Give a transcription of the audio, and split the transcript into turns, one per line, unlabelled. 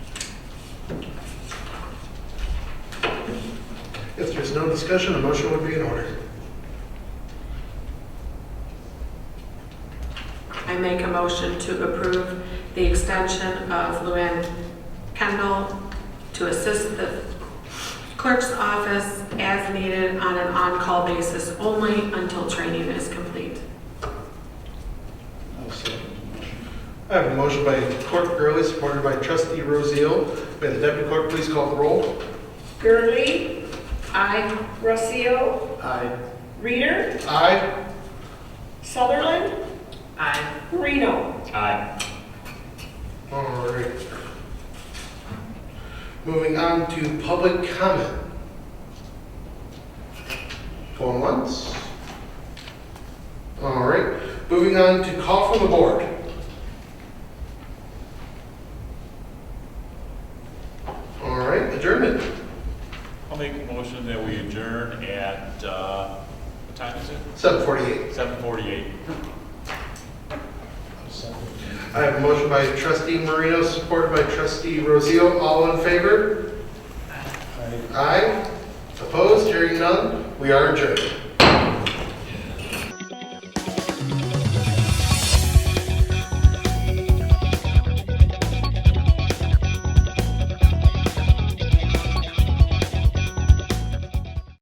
there's no discussion, a motion would be in order.
I make a motion to approve the extension of Luann Kendall to assist the clerk's office as needed on an on-call basis only until training is complete.
I have a motion by Clerk Gurley, supported by Trustee Rosio. May the Deputy Clerk please call the roll.
Gurley,
Aye.
Rossio,
Aye.
Reader,
Aye.
Sutherland,
Aye.
Reno.
Aye.
All right. Moving on to public comment. Going once. All right, moving on to call from the board. All right, adjournment.
I'll make a motion that we adjourn at, uh, what time is it?
7:48.
Seven forty-eight.
I have a motion by trustee Marino, supported by trustee Rosio. All in favor? Aye. Opposed? Hearing none, we are adjourned.